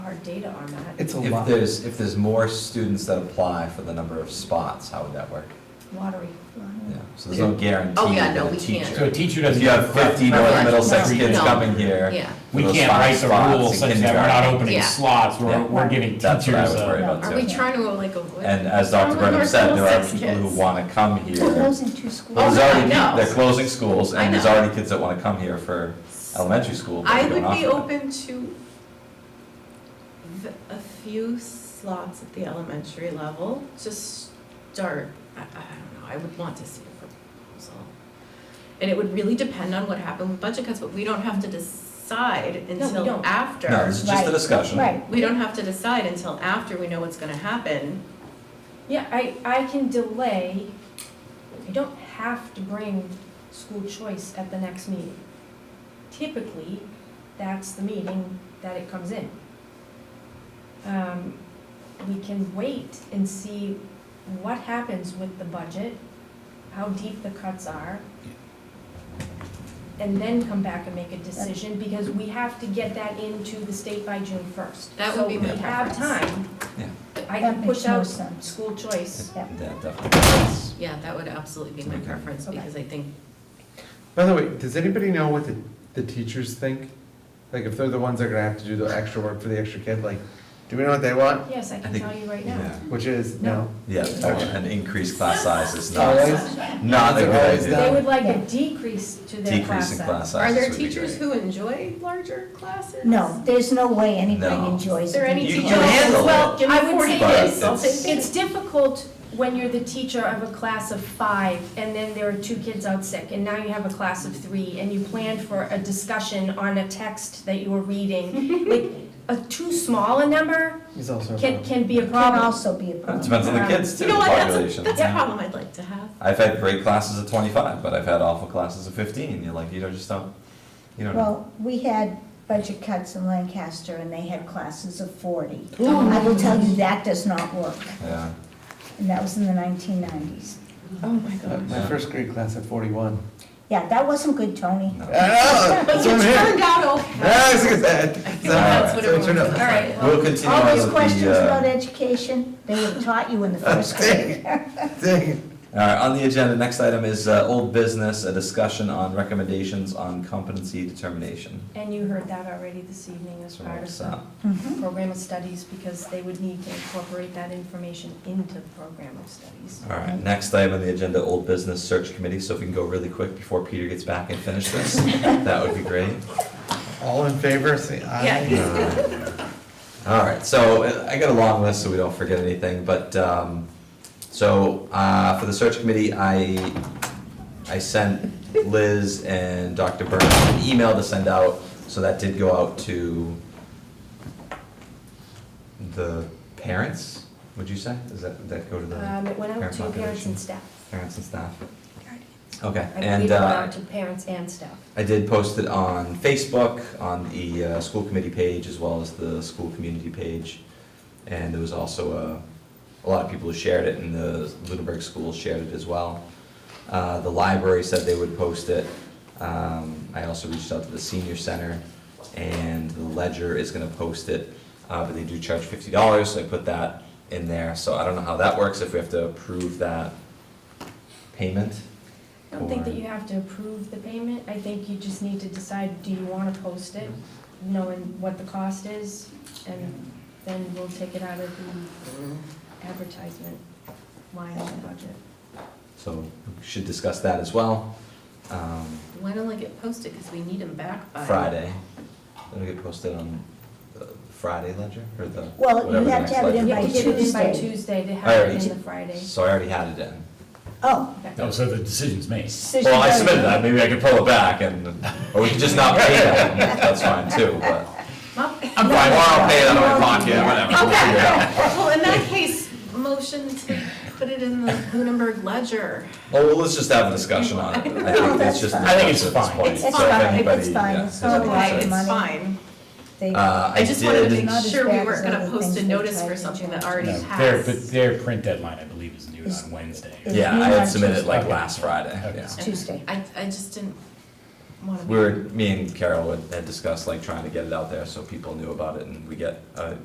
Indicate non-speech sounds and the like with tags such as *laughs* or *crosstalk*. have data on that. It's a If lot. there's, if there's more students that apply for the number of spots, how would that work? Lottery. Yeah, so there's no guarantee Oh, yeah, that no, a we teacher- can't. So a teacher If doesn't. you have fifty North Right. Middlesex No. kids No. coming here, Yeah. We those can't five write the spots rule in such that we're kindergarten. not opening Yeah. slots, Yeah. we're, we're giving teachers uh, that's what I was worried a. about Are we too. trying to like avoid? And as Dr. Brenham said, there are people who wanna come here. Well, Closing two schools. Oh, There's no, I already, know. peop- they're closing schools, I and there's know. already kids that wanna come here for elementary school, but I we would don't be offer that. open to v- a few slots at the elementary level to start. I, I don't know, I would want to see a proposal. And it would really depend on what happened with budget cuts, but we don't have to decide until don't. after. No, this is just a Right, discussion. Right. We don't have to decide until after we know what's gonna happen. Yeah, I, I can delay, I don't have to bring school choice at the next meeting. Typically, that's the meeting that it comes in. Um, we can wait and see what happens with the budget, how deep the cuts are, and then come back and make a decision, because we have to get that into the state by June first. That would be my preference. So we have time. Yeah. I I, can can push push out out school school choice. Yeah, definitely. yeah, that would absolutely be my Okay. preference, Okay. because I think, By the way, does anybody know what the, the teachers think? Like, if they're the ones that are gonna have to do the extra work for the extra kid, like, do we know what they want? Yes, I I can think- tell you right yeah. now. Which is, No. no. Yeah, and increased class size is not, Always? not a They're good always They idea. down. would like a decrease to their class Decreasing class size. sizes are there would be teachers great. who enjoy larger classes? No, There's no way anybody No. enjoys Is there it. any You- teacher? you handle Well, it. give me I would forty say kids, I'll this. take fifty. It's difficult when you're the teacher of a class of five, and then there are two kids out sick, and now you have a class of three, and you planned for a discussion on a text that you were reading. Like, a too small a number He's also. a can, problem. can be a Can problem. also be a It problem. Depends on the kids too, You know what, that's, a- population. that's a problem I'd like to have. I've had great classes of twenty-five, but I've had awful classes of fifteen, you're like, you don't, just don't, you don't know. Well, we had budget cuts in Lancaster and they had classes of forty. I will tell you, that does not work. Yeah, And that was in the nineteen nineties. Oh, my Uh, My first grade class at *laughs* forty-one. Yeah, that wasn't good, Tony. no. I know, that's what I'm hearing. Turned out okay. Ah, it's good, that- that's what so it everyone turned out- feels All right, well, We'll continue All on those with questions the, about uh, education, they were taught you in the *laughs* first grade. Dang it. all right, on the agenda, next item is, uh, old business, a discussion on recommendations on competency determination. And you heard that already this evening as So part of what's the up? Mhm. program of studies, because they would need to incorporate that information into the program of studies. All right, next item on the agenda, old business search committee, so if we can go really quick before Peter gets back and finish *laughs* this, that would be great. All in favor, say aye. All right, so uh, I got a long list, so we don't forget anything, but, um, so, uh, for the search committee, I, I sent Liz and Dr. Burnham an email to send out, so that did go out to the parents, would you say? Does that, did that go to the Um, it went out parent to parents population? and staff. Parents and staff. Okay, I believe and, it went uh, out to parents and staff. I did post it on Facebook, on the uh, school committee page, as well as the school community page. And there was also uh, a, a lot of people who shared it, and the Lunenburg schools shared it as well. Uh, The library said they would post it. Um, I also reached out to the senior center, and the Ledger is gonna post it, uh, but they do charge fifty dollars, so I put that in there. So I don't know how that works, if we have to approve that payment. I don't think or- that you have to approve the payment. I think you just need to decide, do you want to post it, knowing what the cost is? And then we'll take it out of the advertisement line of the budget. So we should discuss that as well. Um, When will it get posted, because we need them back by. Friday, it'll get posted on the Friday ledger or the, Well, you whatever the have to next have it ledger. in You have to get it in by Tuesday. Tuesday to I have already- it in the Friday. So I already had it in. Oh. No, so the decision's made. decision Well, I goes- submitted that, maybe I can pull it back and, or we can just not *laughs* pay that, that's fine too, but. I'm fine, well, I'll pay it out of my pocket, whatever. we'll figure it out. Well, in that case, motion to put it in the Lunenburg *laughs* Ledger. Well, well, let's just have a discussion on it. I think it's just. I think it's discussed at fine. this point, It's so if fine, it's anybody, fine, yeah, it's has any all right. concerns. It's Oh, money. fine. They- Uh, I I just wanted to did, make Not as sure we bad weren't as gonna other post a things they notice tried for to something do. that already No, passed. their, but their print deadline, I believe, is noon Is- on Wednesday. is- yeah, I had submitted like Okay. last Friday, Okay. yeah. And Tuesday. I, I just didn't wanna. be- We were, me and Carol had- had discussed like trying to get it out there so people knew about it and we get a